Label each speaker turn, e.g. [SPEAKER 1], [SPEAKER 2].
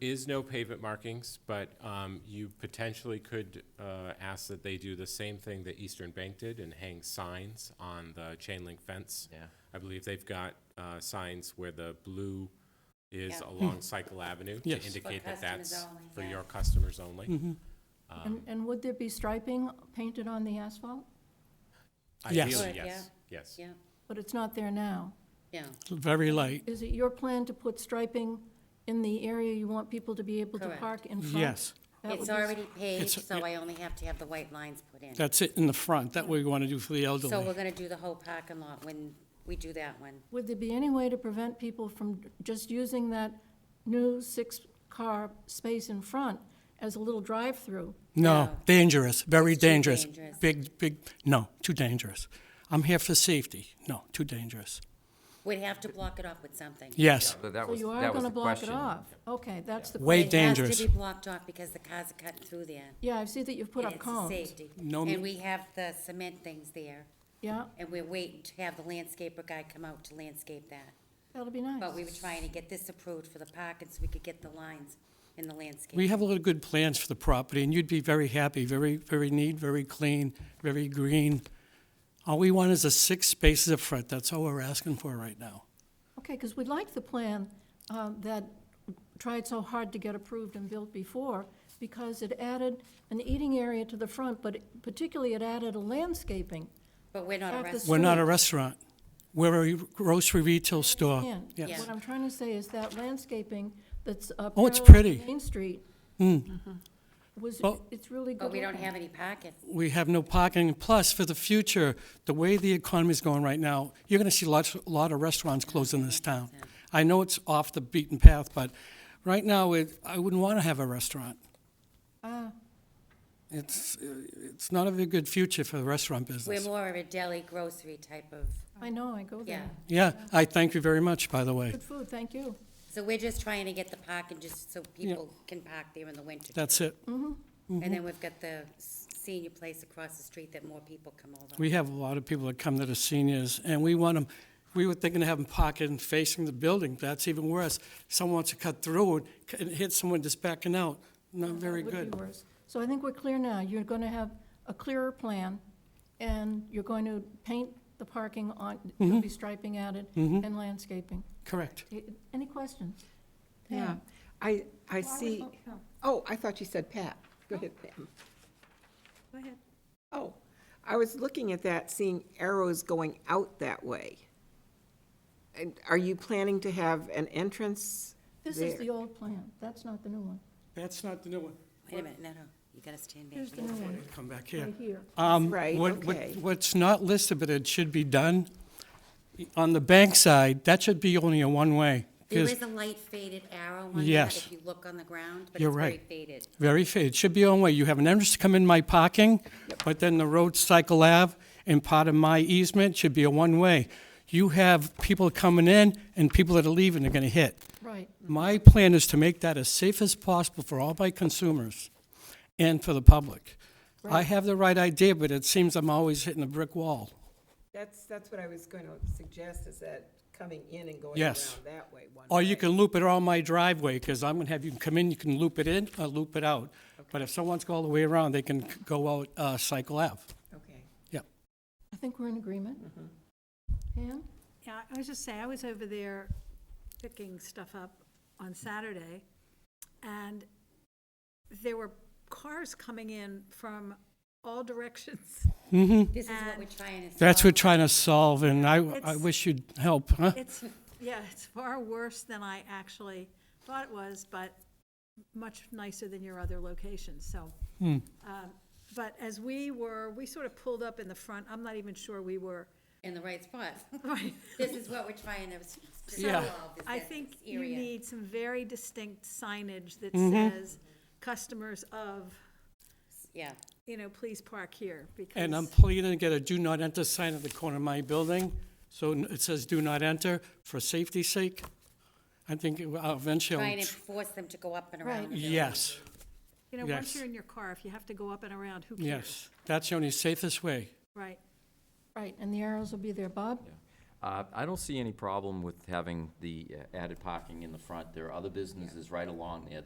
[SPEAKER 1] is no pavement markings, but um, you potentially could uh, ask that they do the same thing that Eastern Bank did and hang signs on the chain link fence.
[SPEAKER 2] Yeah.
[SPEAKER 1] I believe they've got uh, signs where the blue is
[SPEAKER 3] Yeah.
[SPEAKER 1] along Cycle Avenue to
[SPEAKER 4] Yes. For
[SPEAKER 1] indicate that
[SPEAKER 3] customers
[SPEAKER 1] that's
[SPEAKER 3] only,
[SPEAKER 1] for
[SPEAKER 3] yeah.
[SPEAKER 1] your customers only.
[SPEAKER 5] And, and would there be striping painted on the asphalt?
[SPEAKER 4] Yes.
[SPEAKER 1] Ideally,
[SPEAKER 3] Would,
[SPEAKER 1] yes, yes.
[SPEAKER 3] Yeah,
[SPEAKER 5] But it's not there now.
[SPEAKER 3] yeah,
[SPEAKER 4] Very light,
[SPEAKER 5] Is it your plan to put striping in the area you want people to be able to
[SPEAKER 3] Correct.
[SPEAKER 5] park in front?
[SPEAKER 4] yes.
[SPEAKER 5] That would
[SPEAKER 3] it's
[SPEAKER 5] be-
[SPEAKER 3] already paved,
[SPEAKER 4] it's-
[SPEAKER 3] so I only have to have the white lines put in.
[SPEAKER 4] That's it in the front, that we want to do for the
[SPEAKER 3] So we're
[SPEAKER 4] elderly.
[SPEAKER 3] gonna do the whole parking lot when we do that one.
[SPEAKER 5] Would there be any way to prevent people from just using that new six-car space in front as a little drive-through?
[SPEAKER 4] No,
[SPEAKER 3] No.
[SPEAKER 4] dangerous, very
[SPEAKER 3] It's too
[SPEAKER 4] dangerous.
[SPEAKER 3] dangerous.
[SPEAKER 4] Big, big, no, too dangerous. I'm here for safety, no, too dangerous.
[SPEAKER 3] We'd have to block it off with something.
[SPEAKER 4] Yes,
[SPEAKER 2] So that
[SPEAKER 5] So
[SPEAKER 2] was,
[SPEAKER 5] you are
[SPEAKER 2] that was
[SPEAKER 5] going
[SPEAKER 2] the
[SPEAKER 5] to block it
[SPEAKER 2] question.
[SPEAKER 5] off? Okay, that's the
[SPEAKER 3] It
[SPEAKER 4] Way
[SPEAKER 5] question.
[SPEAKER 3] has
[SPEAKER 4] dangerous.
[SPEAKER 3] to be blocked off because the cars are cutting through there.
[SPEAKER 5] Yeah, I see that you've put
[SPEAKER 3] and
[SPEAKER 5] up
[SPEAKER 3] it's a
[SPEAKER 5] cones.
[SPEAKER 3] Safety.
[SPEAKER 4] No
[SPEAKER 3] And
[SPEAKER 4] ma-
[SPEAKER 3] we have the cement things there,
[SPEAKER 5] Yeah,
[SPEAKER 3] and we're waiting to have the landscaper guy come out to landscape that.
[SPEAKER 5] that'll be nice.
[SPEAKER 3] But we were trying to get this approved for the parking so we could get the lines in the landscape.
[SPEAKER 4] We have a lot of good plans for the property, and you'd be very happy, very, very neat, very clean, very green. All we want is the six spaces up front, that's all we're asking for right now.
[SPEAKER 5] Okay, because we like the plan uh, that tried so hard to get approved and built before, because it added an eating area to the front, but particularly it added a landscaping.
[SPEAKER 3] But we're not a
[SPEAKER 5] Have the
[SPEAKER 3] restaurant.
[SPEAKER 4] We're not a
[SPEAKER 5] Sure.
[SPEAKER 4] restaurant, we're a grocery retail store.
[SPEAKER 5] And
[SPEAKER 4] Uh, Yes.
[SPEAKER 5] what I'm trying to say is that landscaping that's up.
[SPEAKER 4] Oh, it's
[SPEAKER 5] parallel to
[SPEAKER 4] pretty. Mm.
[SPEAKER 5] Main Street was,
[SPEAKER 4] Well-
[SPEAKER 5] it's really good
[SPEAKER 3] But we don't
[SPEAKER 5] looking.
[SPEAKER 3] have any parking.
[SPEAKER 4] we have no parking. Plus, for the future, the way the economy is going right now, you're going to see lots, a lot of restaurants close in this town. I know it's off the beaten path, but right now, it, I wouldn't want to have a restaurant. It's, it's not a very good future for the restaurant
[SPEAKER 3] We're
[SPEAKER 4] business.
[SPEAKER 3] more of a deli grocery type of,
[SPEAKER 5] I know, I go
[SPEAKER 3] yeah.
[SPEAKER 5] there.
[SPEAKER 4] Yeah, I thank you very much, by the way.
[SPEAKER 5] Good food, thank you.
[SPEAKER 3] So we're just trying to get the parking just so people can park there in the winter.
[SPEAKER 4] That's it.
[SPEAKER 3] And
[SPEAKER 4] Mhm.
[SPEAKER 3] then we've got the s- senior place across the street that more people come over.
[SPEAKER 4] We have a lot of people that come that are seniors, and we want them, we were thinking of having parking facing the building. That's even worse. Someone wants to cut through it and hit someone just backing out. Not very
[SPEAKER 5] That would
[SPEAKER 4] good.
[SPEAKER 5] be worse. So I think we're clear now. You're going to have a clearer plan, and you're going to paint the parking on, there'll
[SPEAKER 4] Mm-hmm.
[SPEAKER 5] be striping added, and landscaping.
[SPEAKER 4] Correct.
[SPEAKER 5] I- Any questions?
[SPEAKER 6] Yeah,
[SPEAKER 5] Pam?
[SPEAKER 6] I, I
[SPEAKER 5] Well, I was
[SPEAKER 6] see,
[SPEAKER 5] vote no.
[SPEAKER 6] oh, I thought you said Pat. Go ahead, Pam.
[SPEAKER 5] Go ahead.
[SPEAKER 6] Oh, I was looking at that, seeing arrows going out that way. And are you planning to have an entrance
[SPEAKER 5] This is the
[SPEAKER 6] there?
[SPEAKER 5] old plan. That's not the new one.
[SPEAKER 4] That's not the new one.
[SPEAKER 3] Wait a minute, no, no, you gotta stand back.
[SPEAKER 5] Here's the new one,
[SPEAKER 4] Come back here.
[SPEAKER 5] right here.
[SPEAKER 4] Um,
[SPEAKER 6] Right,
[SPEAKER 4] what- what-
[SPEAKER 6] okay.
[SPEAKER 4] What's not listed, but it should be done, on the bank side, that should be only a one-way.
[SPEAKER 3] There
[SPEAKER 4] 'cause
[SPEAKER 3] is a light faded arrow on that
[SPEAKER 4] Yes.
[SPEAKER 3] if you look on the ground, but
[SPEAKER 4] You're
[SPEAKER 3] it's very
[SPEAKER 4] right.
[SPEAKER 3] faded.
[SPEAKER 4] Very fair. It should be one way. You have an entrance to come in my parking, but then the road cycle Ave and part of my easement should be a one-way. You have people coming in and people that are leaving are gonna hit.
[SPEAKER 5] Right.
[SPEAKER 4] My plan is to make that as safe as possible for all my consumers and for the public. I have the right idea, but it seems I'm always hitting a brick wall.
[SPEAKER 6] That's, that's what I was going to suggest, is that coming in and going around
[SPEAKER 4] Yes.
[SPEAKER 6] that way. one
[SPEAKER 4] Or you
[SPEAKER 6] way.
[SPEAKER 4] can loop it around my driveway, because I'm gonna have you come in, you can loop it in or loop it out. But if someone's go all the way around, they can c- go out, uh, Cycle Ave.
[SPEAKER 6] Okay.
[SPEAKER 4] Yep.
[SPEAKER 5] I think we're in agreement.
[SPEAKER 6] Mm-hmm.
[SPEAKER 5] Pam?
[SPEAKER 7] Yeah, I was just saying, I was over there picking stuff up on Saturday, and there were cars coming in from all directions.
[SPEAKER 3] This is what we're
[SPEAKER 7] And-
[SPEAKER 3] trying to.
[SPEAKER 4] That's
[SPEAKER 3] solve.
[SPEAKER 4] what trying to solve, and I, I
[SPEAKER 7] It's-
[SPEAKER 4] wish you'd help, huh?
[SPEAKER 7] It's, yeah, it's far worse than I actually thought it was, but much nicer than your other locations, so. um, But as we were, we sort of pulled up in the front, I'm not even sure we were,
[SPEAKER 3] In the right spot.
[SPEAKER 7] right,
[SPEAKER 3] This is what we're trying to s- to
[SPEAKER 4] Yeah.
[SPEAKER 3] solve. is
[SPEAKER 7] I
[SPEAKER 3] that
[SPEAKER 7] think
[SPEAKER 3] this
[SPEAKER 7] you
[SPEAKER 3] area.
[SPEAKER 7] need some very distinct signage that
[SPEAKER 4] Mm-hmm.
[SPEAKER 7] says, customers of,
[SPEAKER 3] Yeah,
[SPEAKER 7] you know, please park here, because.
[SPEAKER 4] And I'm pleading to get a do not enter sign at the corner of my building, so n- it says do not enter for safety's sake. I think it will- I'll eventually,
[SPEAKER 3] trying
[SPEAKER 4] I'll
[SPEAKER 3] to
[SPEAKER 4] tr-
[SPEAKER 3] force them to go up and around.
[SPEAKER 5] Right.
[SPEAKER 3] the building.
[SPEAKER 4] yes,
[SPEAKER 7] You know, once
[SPEAKER 4] Yes.
[SPEAKER 7] you're in your car, if you have to go up and around, who cares?
[SPEAKER 4] yes, that's the only safest way.
[SPEAKER 7] Right.
[SPEAKER 5] Right, and the arrows will be there. Bob?
[SPEAKER 2] Uh, I don't see any problem with having the uh, added parking in the front. There are other businesses right along there